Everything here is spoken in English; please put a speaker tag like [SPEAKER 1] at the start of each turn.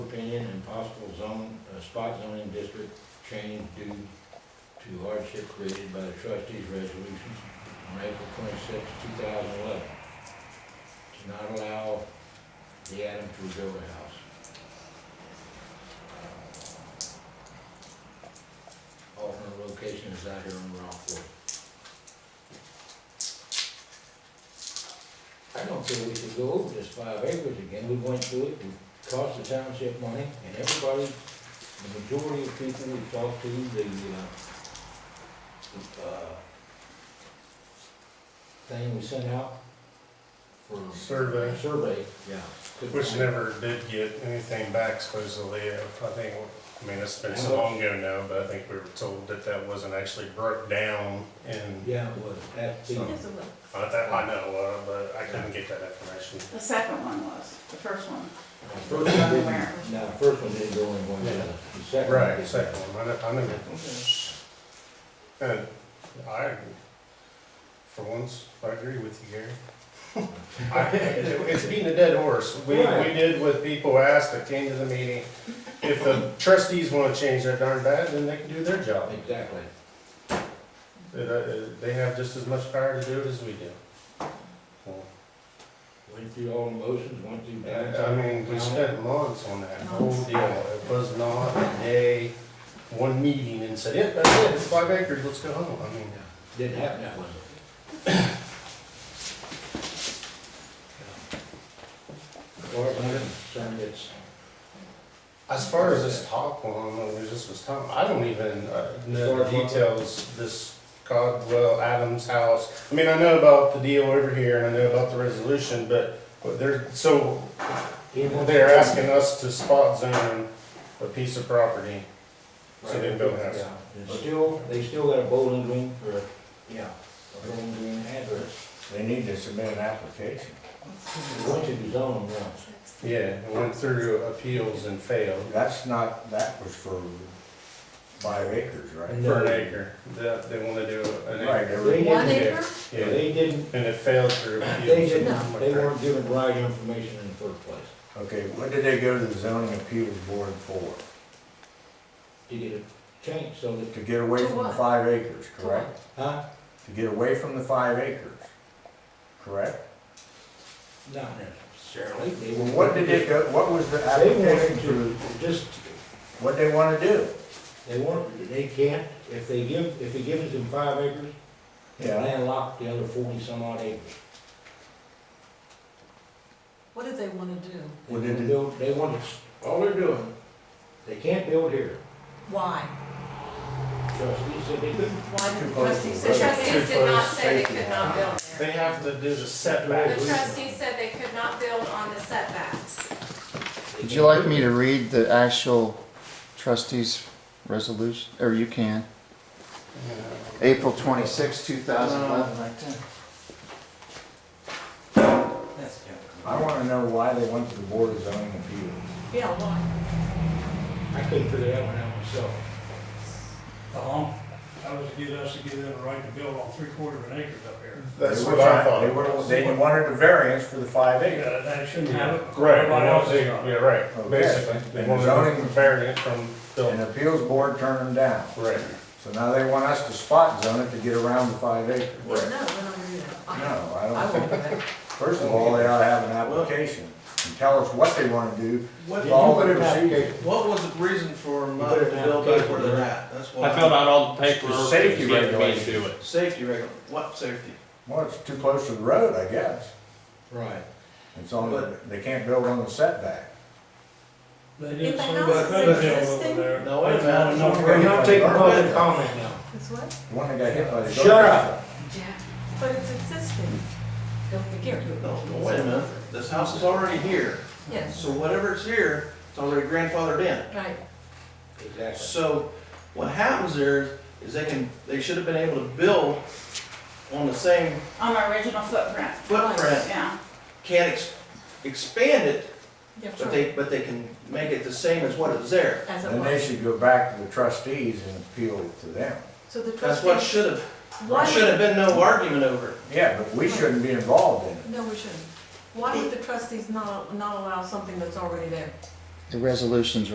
[SPEAKER 1] and possible zone, uh, spot zoning district change due to hardship created by the trustees' resolutions on April twenty-sixth, two thousand eleven. To not allow the Adam to rebuild a house. Alternate location is out here on Rockport. I don't feel we should go over this five acres again, we went through it, it cost the township money, and everybody, the majority of people we talked to, the, uh, the, uh, thing we sent out for.
[SPEAKER 2] Survey.
[SPEAKER 1] Survey, yeah. couldn't
[SPEAKER 2] Which
[SPEAKER 1] find-
[SPEAKER 2] never did get anything back supposedly, I think, I mean, it's been so long ago now, but I think we were told that that wasn't actually broke down and
[SPEAKER 1] Yeah, it was, that's the-
[SPEAKER 2] So-
[SPEAKER 3] Yes, it was.
[SPEAKER 2] I that I know, uh, but I couldn't get that information.
[SPEAKER 3] The second one was, the first one.
[SPEAKER 1] The First one didn't, no, the first one didn't go in one,
[SPEAKER 2] Yeah.
[SPEAKER 1] the second one
[SPEAKER 2] Right,
[SPEAKER 1] did.
[SPEAKER 2] second one, I know, I know that. And I, for once, I agree with you, Gary. I- It's beating a dead horse. We, we
[SPEAKER 1] Right.
[SPEAKER 2] did what people asked that came to the meeting. If the trustees wanna change their darn bad, then they can do their job.
[SPEAKER 1] Exactly.
[SPEAKER 2] They- They they have just as much power to do it as we do. Well,
[SPEAKER 1] Went through all the motions, went through
[SPEAKER 2] I
[SPEAKER 1] downtown.
[SPEAKER 2] mean, we spent months on that whole deal. It was not a day, one meeting and said, yeah, that's it, it's five acres, let's go home. I mean,
[SPEAKER 1] Didn't happen that way. Or, I'm concerned it's,
[SPEAKER 2] As far as this top one, well, there's just this top, I don't even uh, know the
[SPEAKER 1] As far as what?
[SPEAKER 2] details, this Codwell Adams house. I mean, I know about the deal over here and I know about the resolution, but, but they're, so they're asking us to spot zone a piece of property. So they built a house.
[SPEAKER 1] Yeah, and still, they still got a Bowling Green, or, yeah, a Bowling Green address.
[SPEAKER 4] They need to submit an application.
[SPEAKER 1] It Went to the zone, yeah.
[SPEAKER 2] Yeah, it went through appeals and failed
[SPEAKER 4] That's not, that was for five acres, right?
[SPEAKER 2] for an acre. They, they wanna do an
[SPEAKER 4] Right,
[SPEAKER 2] acre.
[SPEAKER 4] they
[SPEAKER 1] They
[SPEAKER 4] were-
[SPEAKER 1] didn't,
[SPEAKER 5] One acre?
[SPEAKER 2] Yeah,
[SPEAKER 1] they didn't,
[SPEAKER 2] and it failed through appeals.
[SPEAKER 1] they didn't,
[SPEAKER 2] and-
[SPEAKER 1] they weren't given the right information in the first place.
[SPEAKER 4] Okay, what did they go to the zoning appeals board for?
[SPEAKER 1] to get it changed so that,
[SPEAKER 4] To get away
[SPEAKER 5] To
[SPEAKER 4] from the
[SPEAKER 5] what?
[SPEAKER 4] five acres, correct?
[SPEAKER 1] huh?
[SPEAKER 4] To get away from the five acres, correct?
[SPEAKER 1] Not necessarily. They
[SPEAKER 4] Well,
[SPEAKER 1] were-
[SPEAKER 4] what did they go, what was the
[SPEAKER 1] They
[SPEAKER 4] application
[SPEAKER 1] wanted
[SPEAKER 4] for,
[SPEAKER 1] to, just,
[SPEAKER 4] what they wanna do?
[SPEAKER 1] they want, they can't, if they give, if they give us them five acres, they
[SPEAKER 4] Yeah,
[SPEAKER 1] landlocked the other forty some odd acres.
[SPEAKER 5] What did they wanna do?
[SPEAKER 1] They
[SPEAKER 4] Well,
[SPEAKER 1] want
[SPEAKER 4] did
[SPEAKER 1] to
[SPEAKER 4] it-
[SPEAKER 1] build, they want to, all they're doing, they can't build here.
[SPEAKER 5] Why?
[SPEAKER 1] Trustees said they couldn't.
[SPEAKER 5] Why did
[SPEAKER 4] Too
[SPEAKER 5] the
[SPEAKER 4] close to
[SPEAKER 5] trustees
[SPEAKER 4] the
[SPEAKER 6] The
[SPEAKER 4] road.
[SPEAKER 5] say,
[SPEAKER 6] trustees did not say they could not build there.
[SPEAKER 2] They have to do the
[SPEAKER 6] The
[SPEAKER 2] setback.
[SPEAKER 6] trustees said they could not build on the setbacks.
[SPEAKER 1] They
[SPEAKER 7] Would you like
[SPEAKER 1] can't
[SPEAKER 7] me
[SPEAKER 1] build.
[SPEAKER 7] to read the actual trustees resolution, or you can? April twenty-six, two thousand eleven.
[SPEAKER 4] I wanna know why they went to the board of zoning appeals.
[SPEAKER 5] yeah, why?
[SPEAKER 1] I couldn't figure that one out myself.
[SPEAKER 8] Uh-huh. That was to get us to give them a right to build on three quarter of an acre up here.
[SPEAKER 2] That's
[SPEAKER 4] They were
[SPEAKER 2] what I
[SPEAKER 4] trying- They
[SPEAKER 2] thought.
[SPEAKER 4] were, they wanted a variance for the five acres.
[SPEAKER 8] Yeah, that shouldn't have it.
[SPEAKER 2] Right,
[SPEAKER 8] Everybody
[SPEAKER 2] well,
[SPEAKER 8] else
[SPEAKER 2] they-
[SPEAKER 8] is on
[SPEAKER 2] yeah,
[SPEAKER 8] it.
[SPEAKER 2] right,
[SPEAKER 4] Okay.
[SPEAKER 2] basically, they
[SPEAKER 4] And
[SPEAKER 2] wanted
[SPEAKER 4] zoning-
[SPEAKER 2] to compare it from
[SPEAKER 4] And
[SPEAKER 2] building.
[SPEAKER 4] the appeals board turned them down.
[SPEAKER 2] Right.
[SPEAKER 4] So now they want us to spot zone it to get around the five acres.
[SPEAKER 5] No, we're not gonna do that. I-
[SPEAKER 4] No, I
[SPEAKER 5] I
[SPEAKER 4] don't
[SPEAKER 5] won't
[SPEAKER 4] think,
[SPEAKER 5] do that.
[SPEAKER 4] first of all, they ought to have an application and tell us what they wanna do,
[SPEAKER 9] What,
[SPEAKER 4] all the
[SPEAKER 1] Did you put an
[SPEAKER 4] procedures.
[SPEAKER 9] what was the reason for
[SPEAKER 1] You
[SPEAKER 9] mud
[SPEAKER 1] put
[SPEAKER 9] to
[SPEAKER 1] it in
[SPEAKER 9] build
[SPEAKER 1] application,
[SPEAKER 9] back where they're
[SPEAKER 1] right?
[SPEAKER 9] at? That's
[SPEAKER 10] I
[SPEAKER 9] what
[SPEAKER 10] filled out all the
[SPEAKER 2] The
[SPEAKER 10] paperwork.
[SPEAKER 2] safety
[SPEAKER 10] to get me to
[SPEAKER 2] regulations.
[SPEAKER 10] do it.
[SPEAKER 9] Safety regu, what safety?
[SPEAKER 4] Well, it's too close to the road, I guess.
[SPEAKER 1] Right.
[SPEAKER 4] It's on, the- they can't build on the setback.
[SPEAKER 8] They didn't
[SPEAKER 5] If the
[SPEAKER 8] say
[SPEAKER 5] house
[SPEAKER 8] that
[SPEAKER 5] is
[SPEAKER 8] they built
[SPEAKER 5] existing-
[SPEAKER 8] over there.
[SPEAKER 9] No, wait a
[SPEAKER 8] They
[SPEAKER 9] minute.
[SPEAKER 8] wanted no
[SPEAKER 1] We're not taking public
[SPEAKER 4] public
[SPEAKER 1] comment now.
[SPEAKER 5] It's what?
[SPEAKER 4] The one that got hit by the.
[SPEAKER 1] Shut up.
[SPEAKER 5] But it's existing. Don't forget.
[SPEAKER 9] No, no, wait a minute, this house is already here,
[SPEAKER 5] Yes,
[SPEAKER 9] so whatever's here, it's already grandfathered in.
[SPEAKER 5] right.
[SPEAKER 1] Exactly.
[SPEAKER 9] So what happens there is, is they can, they should have been able to build on the same
[SPEAKER 3] On my original footprint,
[SPEAKER 9] footprint,
[SPEAKER 3] yeah.
[SPEAKER 9] can't ex- expand it,
[SPEAKER 5] Yeah,
[SPEAKER 9] but they, but they can make it the same as what is there.
[SPEAKER 5] As it
[SPEAKER 4] Then they
[SPEAKER 5] was.
[SPEAKER 4] should go back to the trustees and appeal to them.
[SPEAKER 5] So the
[SPEAKER 9] That's what
[SPEAKER 5] trustees,
[SPEAKER 9] should have,
[SPEAKER 5] why
[SPEAKER 9] should have
[SPEAKER 5] would,
[SPEAKER 9] been no argument over. it.
[SPEAKER 4] Yeah, but we shouldn't be involved in it.
[SPEAKER 5] no, we shouldn't. Why would the trustees not, not allow something that's already there?
[SPEAKER 7] The resolution's